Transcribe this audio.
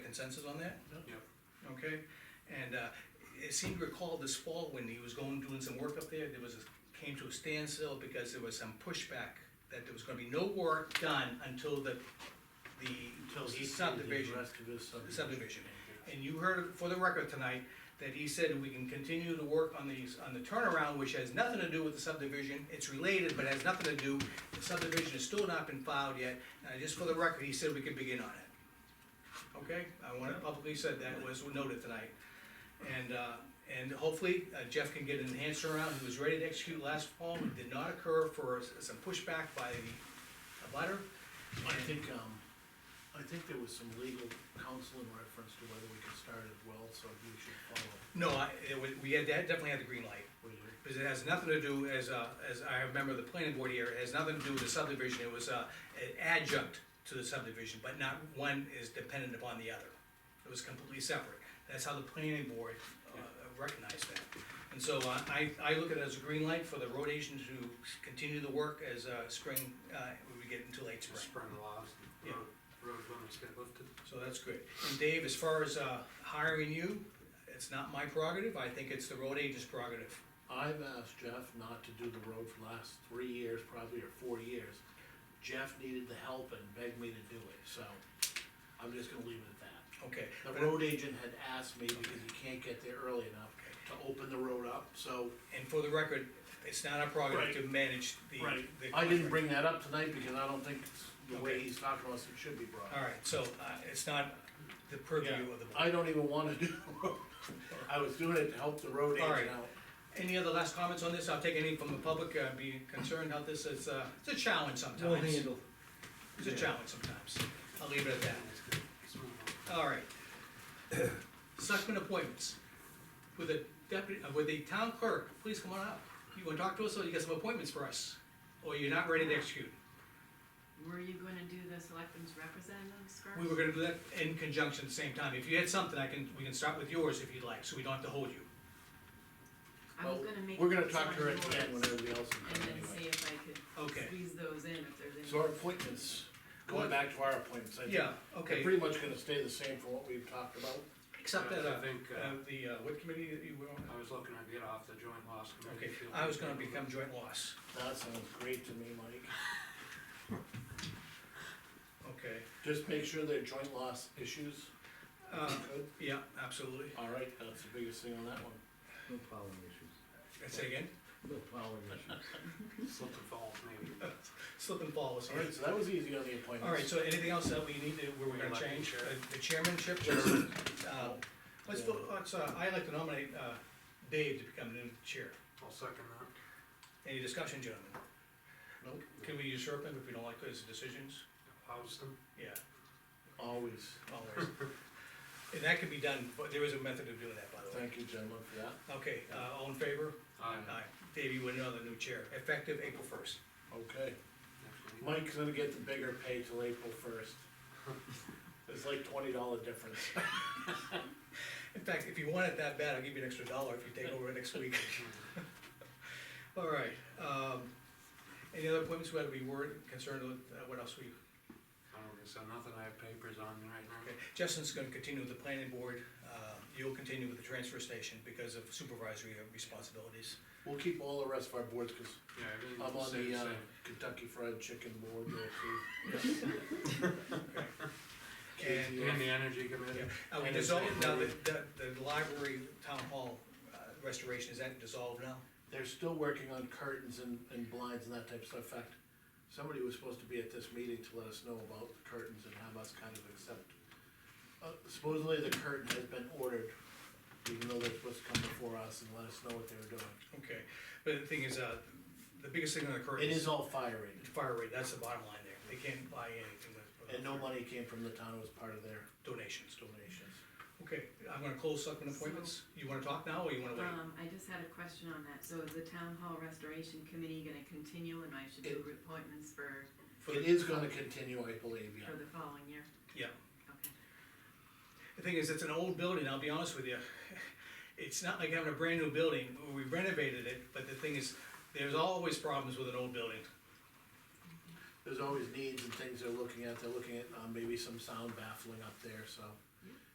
consensus on that? Yep. Okay, and, uh, it seemed to recall this fall when he was going, doing some work up there, there was, a- came to a standstill because there was some pushback that there was gonna be no work done until the, Until the he sees subdivision. the rest of his subdivision. Subdivision. And you heard for the record tonight that he said we can continue to work on these, on the turnaround, which has nothing to do with the subdivision. It's related, but has nothing to do, the subdivision has still not been filed yet. Uh, just for the record, he said we could begin on it. Okay, I wanna publicly said that, was noted tonight. And, uh, and hopefully uh, Jeff can get an answer around, he was ready to execute last fall, it did not occur for s- some pushback by the abutter. I think, um, I think there was some legal counsel in reference to whether we could start it well, so we should follow. No, I, it wa- we had, definitely had the green light. what you- Because it has nothing to do, as, uh, as I remember the planning board here, it has nothing to do with the subdivision, it was, uh, an adjunct to the subdivision, but not one is dependent upon the other. It was completely separate, that's how the planning board, uh, recognized that. And so, uh, I, I look at it as a green light for the road agent to continue the work as, uh, spring, uh, we get into late spring. Spring laws, and Yeah. road, road limits get lifted. So that's good. And Dave, as far as, uh, hiring you, it's not my prerogative, I think it's the road agent's prerogative. I've asked Jeff not to do the road for the last three years, probably, or four years. Jeff needed the help and begged me to do it, so I'm just gonna leave it at that. Okay. The road agent had asked me because he can't get there early enough to open the road up, so. And for the record, it's not our prerogative to manage the. the I contract. didn't bring that up tonight because I don't think it's the way Okay. he's talking to us, it should be brought All up. right, so, uh, it's not the purview of the board. I don't even wanna do, I was doing it to help the road All right. agent out. Any other last comments on this? I'll take any from the public, uh, be concerned how this is, uh, it's a challenge sometimes. We'll handle. It's a challenge sometimes. I'll leave it at that. It's good. It's moving on. All right. Selectmen appointments. With the deputy, uh, with the town clerk, please come on up. You wanna talk to us, or you got some appointments for us? Or you're not ready to execute? Were you gonna do the selectmen's representatives first? We were gonna do that in conjunction at the same time. If you had something, I can, we can start with yours if you'd like, so we don't have to hold you. I was Well, gonna make. We're gonna these talk to her on at the end when yours everybody else is And done then see anyway. if I could Okay. squeeze those in, if there's any. So our appointments, What? going back to our appointments, I think. Yeah, They're okay, pretty much gonna stay the same from what we've talked about. except that, I uh, think, uh, uh, the, uh, what committee that you were on? I was looking to get off the joint loss Okay, committee. Feel I was free gonna to become joint loss, That sounds great to me, Mike. okay. Just make sure they're joint loss issues. Uh, Good. yeah, absolutely. All right, that's the biggest thing on that one. No plowing issues. Say again, No plowing issues. Slip and falls maybe. slip and fall, All right, so that was easy on the appointments. All right, so anything else that we need to, where we're gonna Elected change, chair. Uh, the chairmanship, uh, let's, vote- let's, uh, I'd like to nominate, uh, Dave to become the new chair. I'll second that. Any discussion, gentlemen? Nope, Can we usurp him if we don't like his decisions? Houston, Yeah. always. always. And that could be done, but there is a method of doing that, by the way. Thank you, gentlemen, for that. Okay, uh, all in favor? aye. Aye. Dave, you win another new chair, effective April first. Okay. Definitely. Mike's gonna get the bigger pay till April first. It's like twenty dollar difference. In fact, if you want it that bad, I'll give you an extra dollar if you take over next week. All right, um, any other appointments, whether we were concerned with, uh, what else we, I don't think so, nothing, I have papers on me right now. okay. Justin's gonna continue with the planning board, uh, you'll continue with the transfer station because of supervisory responsibilities. We'll keep all the rest of our boards, cause Yeah, everything's I'm on same, the, uh, same. Kentucky Fried Chicken board there too. And, And the energy committee, yeah, uh, we And it's- dissolved, now the, the, the library, town hall uh, restoration, is that dissolved now? They're still working on curtains and, and blinds and that type of stuff. In fact, somebody was supposed to be at this meeting to let us know about the curtains and have us kind of accept. Uh, supposedly the curtain has been ordered, even though they're supposed to come before us and let us know what they were doing. Okay, but the thing is, uh, the biggest thing on the current It is is all fire rated, the fire rate, that's the bottom line there, they can't buy anything with. and no money came from the town, it was part of their Donations. donations. Okay, I'm gonna close selectmen appointments, you wanna talk now, or you wanna wait? Um, I just had a question on that, so is the town hall restoration committee gonna continue and I should do appointments for, For It the- is gonna continue, I believe, yeah. for the following year? Yeah, Okay. the thing is, it's an old building, I'll be honest with you, it's not like having a brand new building, we renovated it, but the thing is, there's always problems with an old building. uh, There's always needs and things they're looking at, they're looking at, um, maybe some sound baffling up there, so.